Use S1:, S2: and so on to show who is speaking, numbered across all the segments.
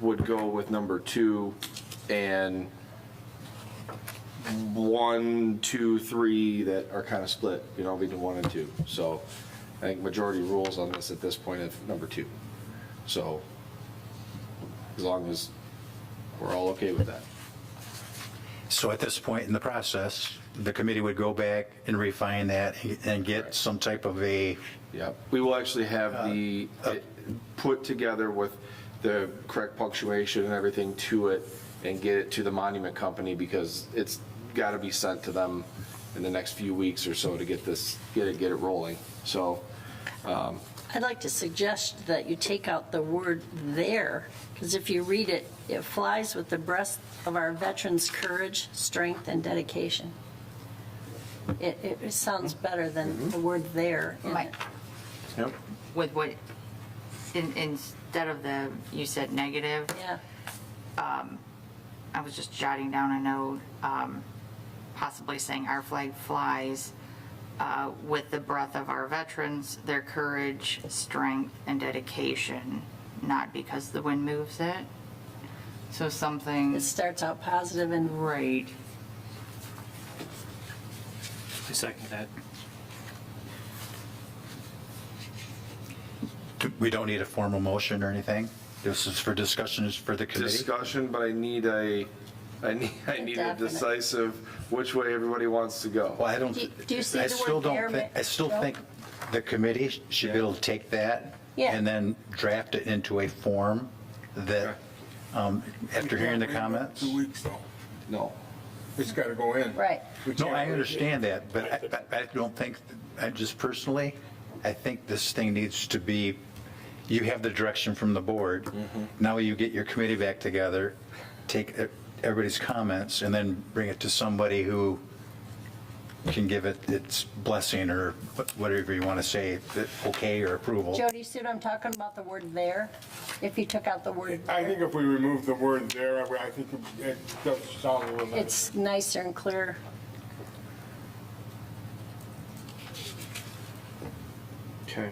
S1: would go with number two and one, two, three that are kind of split, you know, between one and two. So I think majority rules on this at this point of number two. So as long as we're all okay with that.
S2: So at this point in the process, the committee would go back and refine that and get some type of a,
S1: Yep. Uh, We will actually have the, it put together with the correct punctuation and everything to it and get it to the monument company because it's got to be sent to them in the next few weeks or so to get this, get it, get it rolling. So,
S3: I'd like to suggest that you take out the word "there," because if you read it, it flies with the breast of our veterans' courage, strength, and dedication. It, it it sounds better than the word "there." in
S4: Right.
S3: it.
S1: yep.
S4: with what, in, instead of the, you said negative,
S3: Yeah,
S4: I was just jotting down a note, um, possibly saying our flag flies uh, with the breath of our veterans, their courage, strength, and dedication, not because the wind moves it. So something,
S3: it starts out positive and
S4: right,
S5: I second that.
S2: we don't need a formal motion or anything. This is for discussions for the committee.
S1: Discussion, but I need a, I need, I need a
S3: Definite.
S1: decisive which way everybody wants to go.
S2: Well, I don't,
S3: Do- do you see
S2: I
S3: the
S2: still
S3: word there,
S2: don't think,
S3: Ma-
S2: I still
S3: Joe?
S2: think the committee should be able to take that
S3: Yeah.
S2: and then draft it into a form that, um, after hearing the comments.
S6: Two weeks though.
S1: No.
S6: It's got to go in.
S3: Right.
S6: We
S2: No,
S6: can't
S2: I
S6: wait.
S2: understand that, but I, but I don't think, I just personally, I think this thing needs to be, you have the direction from the board. Now you get your committee back together, take e, everybody's comments, and then bring it to somebody who can give it its blessing or whatever you want to say, that okay or approval.
S3: Jody, see what I'm talking about, the word "there"? If you took out the word
S6: I think if we remove the word there, I I think it does sound a little nicer.
S3: It's nicer and clearer.
S1: Okay.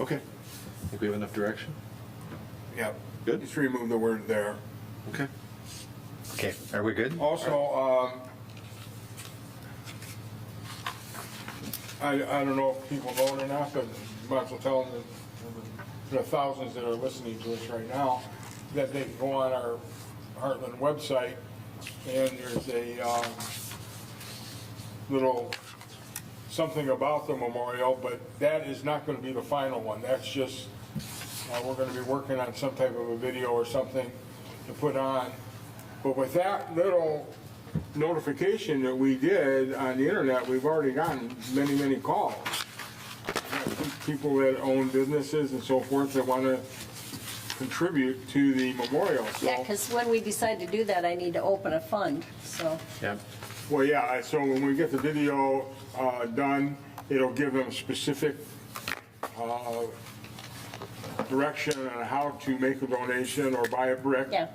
S1: Okay. Think we have enough direction?
S6: Yep.
S1: Good.
S6: Just remove the word there.
S1: Okay.
S2: Okay, are we good?
S6: Also, um, I, I don't know if people vote or not, but might as well tell them, that the thousands that are listening to us right now, that they can go on our Heartland website, and there's a, um, little something about the memorial, but that is not gonna be the final one. That's just, uh, we're gonna be working on some type of a video or something to put on. But with that little notification that we did on the internet, we've already gotten many, many calls. People that own businesses and so forth that wanna contribute to the memorial, so.
S3: Yeah, because when we decide to do that, I need to open a fund, so.
S1: Yep.
S6: Well, yeah, I- so when we get the video uh, done, it'll give them specific uh, direction on how to make a donation or buy a brick.
S3: Yeah.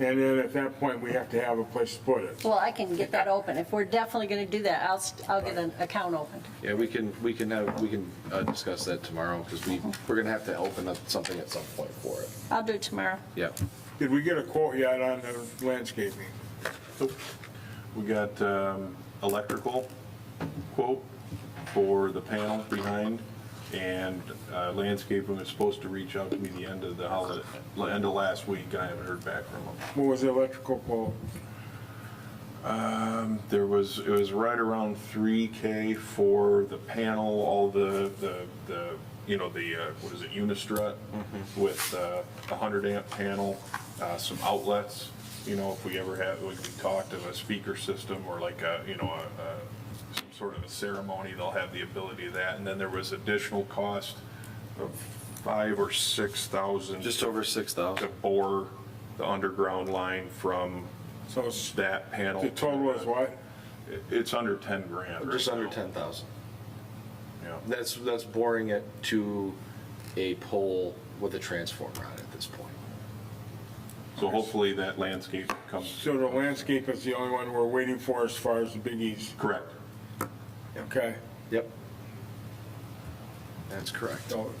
S6: And then at that point, we have to have a place to put it.
S3: Well, I can get that open. If we're definitely going to do that, I'll, st- I'll get an account opened.
S1: Yeah, we can, we can have, we can uh, discuss that tomorrow because we, we're gonna have to open up something at some point for it.
S3: I'll do it tomorrow.
S1: Yeah.
S6: Did we get a quote yet on the landscaping?
S7: We got um, electrical quote for the panels behind, and uh, landscaping was supposed to reach out to me the end of the holiday, end of last week, and I haven't heard back from them.
S6: What was the electrical quote?
S7: There was, it was right around 3K for the panel, all the, the, the you know, the, uh, what is it, Unistrut
S1: Mm-hmm.
S7: with uh, a 100 amp panel, uh, some outlets, you know, if we ever have, we we talked of a speaker system or like a, you know, a- a- some sort of a ceremony, they'll have the ability of that. And then there was additional cost of five or 6,000
S1: Just over six thousand.
S7: to bore the underground line from
S6: So it's-
S7: that panel.
S6: the total
S7: to
S6: is what?
S7: it- It's under 10 grand.
S1: Just
S7: right
S1: under
S7: now.
S1: ten thousand.
S7: Yeah.
S1: That's, that's boring it to a pole with a transformer on it at this point.
S7: So hopefully that landscape comes,
S6: So the landscape is the only one we're waiting for as far as the biggies,
S7: correct.
S6: okay?
S1: Yep. That's correct.
S6: So